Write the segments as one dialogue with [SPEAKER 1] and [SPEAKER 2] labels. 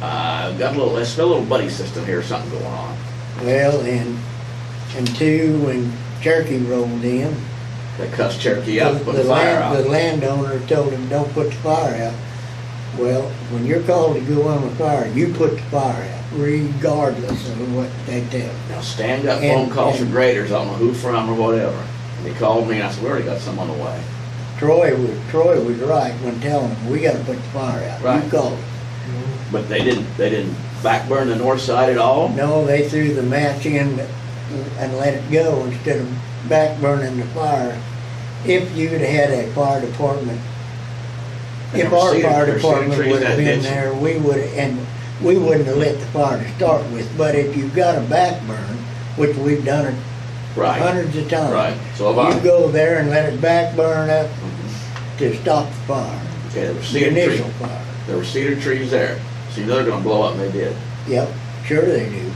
[SPEAKER 1] Uh, got a little, it's a little buddy system here, something going on.
[SPEAKER 2] Well, and, and two, when Cherokee rolled in.
[SPEAKER 1] They cussed Cherokee out,
[SPEAKER 2] the-
[SPEAKER 1] put
[SPEAKER 2] the
[SPEAKER 1] the fire
[SPEAKER 2] land- The
[SPEAKER 1] out.
[SPEAKER 2] landowner told him, don't put the fire out. Well, when you're called to go on the fire, you put the fire out regardless of what they tell you.
[SPEAKER 1] Now Stan got
[SPEAKER 2] And-
[SPEAKER 1] phone calls from
[SPEAKER 2] and-
[SPEAKER 1] graders, I don't know who from or whatever. And they called me and I said, we already got some on the way.
[SPEAKER 2] Troy was, Troy was right when telling him, we gotta put the fire out. You
[SPEAKER 1] Right.
[SPEAKER 2] called.
[SPEAKER 1] But they didn't, they didn't backburn the north side at all?
[SPEAKER 2] No, they threw the match in and let it go instead of back burning the fire. If you'd had a fire department, if our
[SPEAKER 1] Cedar-
[SPEAKER 2] fire
[SPEAKER 1] there's cedar
[SPEAKER 2] department
[SPEAKER 1] trees
[SPEAKER 2] would have
[SPEAKER 1] that
[SPEAKER 2] been
[SPEAKER 1] ditch.
[SPEAKER 2] there, we would, and we wouldn't have let the fire to start with. But if you've got a back burn, which we've done it
[SPEAKER 1] Right,
[SPEAKER 2] hundreds of times.
[SPEAKER 1] right, so have
[SPEAKER 2] You
[SPEAKER 1] I. Mm-hmm.
[SPEAKER 2] go there and let it back burn up to stop the fire,
[SPEAKER 1] Okay, there were
[SPEAKER 2] the
[SPEAKER 1] cedar trees,
[SPEAKER 2] initial fire.
[SPEAKER 1] there were cedar trees there. See, they're gonna blow up and they did.
[SPEAKER 2] Yep, sure they do.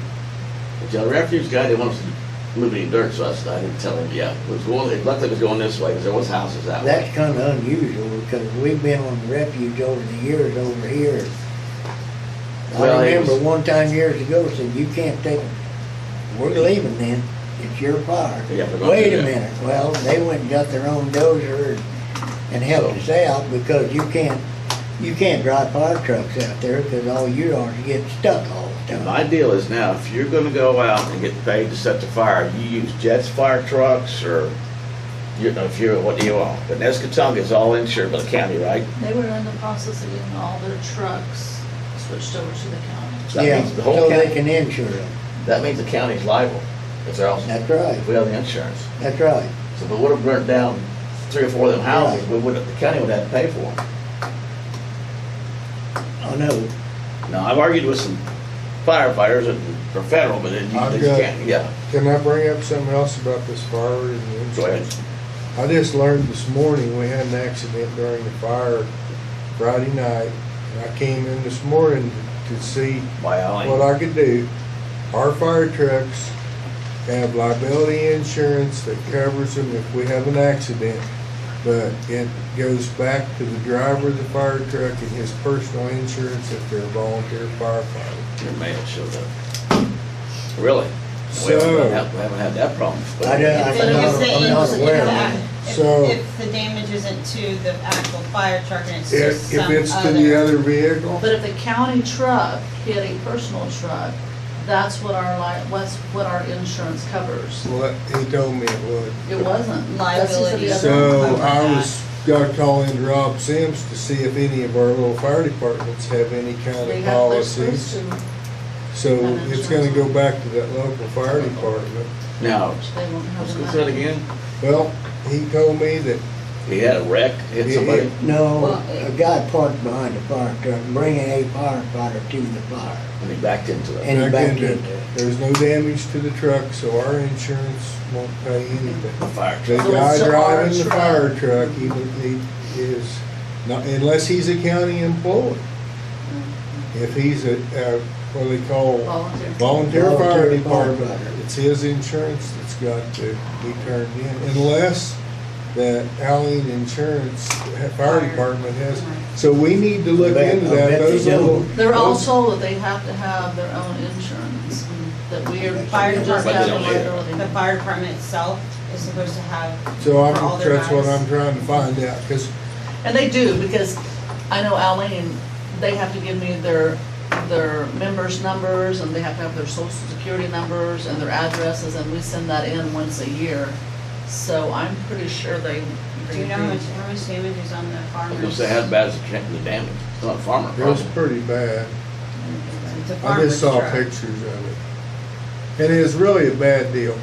[SPEAKER 1] But the refuse guy, they wanted to move any dirt, so I said, I didn't tell him, yeah. It was going, it looked like it was going this way, because there was houses that way.
[SPEAKER 2] That's kind of unusual because we've been on refuge over the years over here.
[SPEAKER 1] Well,
[SPEAKER 2] I
[SPEAKER 1] it
[SPEAKER 2] remember
[SPEAKER 1] was-
[SPEAKER 2] one time years ago said, you can't take, we're leaving then, it's your fire.
[SPEAKER 1] Yeah, they're gonna
[SPEAKER 2] Wait
[SPEAKER 1] do
[SPEAKER 2] a
[SPEAKER 1] that.
[SPEAKER 2] minute, well, they went and got their own dozer and helped us out because you can't, you can't drive fire trucks out there because all you are is getting stuck all the
[SPEAKER 1] And
[SPEAKER 2] time.
[SPEAKER 1] my deal is now, if you're gonna go out and get paid to set the fire, you use Jets fire trucks or, you know, if you're, what do you want? But Nescatonga is all insured by the county, right?
[SPEAKER 3] They were in the process of getting all their trucks switched over to the county.
[SPEAKER 1] So that
[SPEAKER 2] Yeah,
[SPEAKER 1] means the
[SPEAKER 2] so
[SPEAKER 1] whole
[SPEAKER 2] they
[SPEAKER 1] county,
[SPEAKER 2] can insure them.
[SPEAKER 1] that means the county's liable, if they're all,
[SPEAKER 2] That's right,
[SPEAKER 1] if we have the insurance.
[SPEAKER 2] that's right.
[SPEAKER 1] So if we would've burnt down three or four of them houses, we would, the county would have to pay for them.
[SPEAKER 2] I know.
[SPEAKER 1] Now, I've argued with some firefighters and for federal, but then
[SPEAKER 4] I've
[SPEAKER 1] you just
[SPEAKER 4] got-
[SPEAKER 1] can't, yeah,
[SPEAKER 4] Can I bring up something else about this fire and the
[SPEAKER 1] go ahead.
[SPEAKER 4] insurance? I just learned this morning, we had an accident during the fire Friday night. And I came in this morning to see
[SPEAKER 1] By Allen.
[SPEAKER 4] what I could do. Our fire trucks have liability insurance that covers them if we have an accident. But it goes back to the driver of the fire truck and his personal insurance if they're a volunteer firefighter.
[SPEAKER 1] Your mail showed up. Really? We
[SPEAKER 4] So-
[SPEAKER 1] haven't had, we haven't had that problem.
[SPEAKER 2] I don't- I
[SPEAKER 5] If
[SPEAKER 2] I'm
[SPEAKER 5] it
[SPEAKER 2] not-
[SPEAKER 5] is the-
[SPEAKER 2] I'm
[SPEAKER 5] if
[SPEAKER 2] not
[SPEAKER 5] it's- if
[SPEAKER 2] aware
[SPEAKER 5] the
[SPEAKER 2] of
[SPEAKER 5] act- if-
[SPEAKER 4] So-
[SPEAKER 5] If the damage isn't to the actual fire truck and it's to
[SPEAKER 4] If,
[SPEAKER 5] some
[SPEAKER 4] if
[SPEAKER 5] other.
[SPEAKER 4] it's to the other vehicle,
[SPEAKER 3] But if the county truck hit a personal truck, that's what our li, that's what our insurance covers.
[SPEAKER 4] well, he told me it would.
[SPEAKER 3] It wasn't.
[SPEAKER 5] Liability.
[SPEAKER 3] That's just the other one.
[SPEAKER 4] So I was gonna call in Rob Sims to see if any of our little fire departments have any
[SPEAKER 1] uh,
[SPEAKER 4] kind
[SPEAKER 3] They
[SPEAKER 4] of
[SPEAKER 3] have, they're supposed
[SPEAKER 4] policies.
[SPEAKER 3] to,
[SPEAKER 4] So
[SPEAKER 3] have
[SPEAKER 4] it's gonna
[SPEAKER 3] insurance.
[SPEAKER 4] go back to that local fire department.
[SPEAKER 1] Now,
[SPEAKER 3] which they won't have
[SPEAKER 1] let's
[SPEAKER 3] the
[SPEAKER 1] go
[SPEAKER 3] money.
[SPEAKER 1] through it again.
[SPEAKER 4] Well, he told me that,
[SPEAKER 1] He had a wreck, hit
[SPEAKER 4] Yeah,
[SPEAKER 1] somebody.
[SPEAKER 2] No,
[SPEAKER 5] Well,
[SPEAKER 2] a guy parked behind a fire truck, bringing a firefighter to the fire.
[SPEAKER 1] And he backed into it.
[SPEAKER 2] And he
[SPEAKER 4] Back
[SPEAKER 2] backed
[SPEAKER 4] into it.
[SPEAKER 2] into it.
[SPEAKER 4] there's no damage to the truck, so our insurance won't pay anything.
[SPEAKER 1] Fire
[SPEAKER 4] The
[SPEAKER 1] truck.
[SPEAKER 3] So it's
[SPEAKER 4] guy
[SPEAKER 3] to our
[SPEAKER 4] driving the
[SPEAKER 3] truck.
[SPEAKER 4] fire truck, he, he is, not, unless he's a county employee. If he's a, uh, what do they call?
[SPEAKER 3] Volunteer.
[SPEAKER 4] Volunteer fire
[SPEAKER 2] Volunteer
[SPEAKER 4] department,
[SPEAKER 2] firefighter.
[SPEAKER 4] it's his insurance that's got to be turned in, unless that Allen Insurance ha- Fire Department has. So we need to look
[SPEAKER 2] Bet-
[SPEAKER 4] into
[SPEAKER 2] I
[SPEAKER 4] that,
[SPEAKER 2] bet they
[SPEAKER 4] those
[SPEAKER 2] do.
[SPEAKER 4] little.
[SPEAKER 3] They're all
[SPEAKER 4] those-
[SPEAKER 3] told that they have to have their own insurance, that we are
[SPEAKER 5] Fire
[SPEAKER 3] fired just
[SPEAKER 1] But they
[SPEAKER 3] out
[SPEAKER 5] department,
[SPEAKER 1] don't
[SPEAKER 3] of
[SPEAKER 1] either.
[SPEAKER 3] liability.
[SPEAKER 5] the fire department itself is supposed to have.
[SPEAKER 4] So
[SPEAKER 5] for all
[SPEAKER 4] I'm,
[SPEAKER 5] their
[SPEAKER 4] that's what
[SPEAKER 5] guys.
[SPEAKER 4] I'm trying to find out, because
[SPEAKER 3] And they do, because I know Alene, they have to give me their, their members' numbers, and they have to have their social security numbers and their addresses, and we send that in once a year. So I'm pretty sure they.
[SPEAKER 5] Do you know how much, how much damage is on the
[SPEAKER 1] I
[SPEAKER 5] farmers?
[SPEAKER 1] was gonna say, how bad is the the damage? It's not a farmer
[SPEAKER 4] it was
[SPEAKER 1] problem.
[SPEAKER 4] pretty bad.
[SPEAKER 5] The
[SPEAKER 4] I
[SPEAKER 5] farmer's
[SPEAKER 4] just saw
[SPEAKER 5] truck.
[SPEAKER 4] pictures of it. And it is really a bad deal,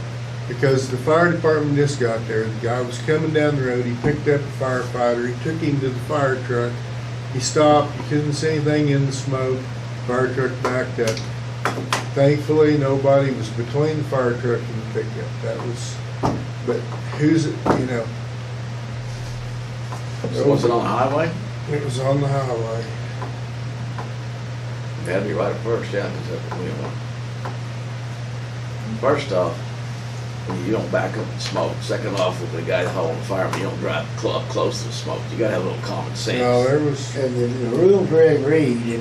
[SPEAKER 4] because the fire department just got there, the guy was coming down the road, he picked up a firefighter, he took him to the fire truck. He stopped, you couldn't see anything in the smoke, fire truck backed up. Thankfully, nobody was between the fire truck and the pickup, that was, but who's, you know,
[SPEAKER 1] So was it on the highway?
[SPEAKER 4] it was on the highway.
[SPEAKER 1] That'd be right at first, yeah, because that's what we want. First off, you don't back up and smoke. Second off, with the guy hauling the fireman, you don't drive cl- up close to the smoke. You gotta have a little common sense.
[SPEAKER 4] No, there was.
[SPEAKER 2] And the the rules where it reads, if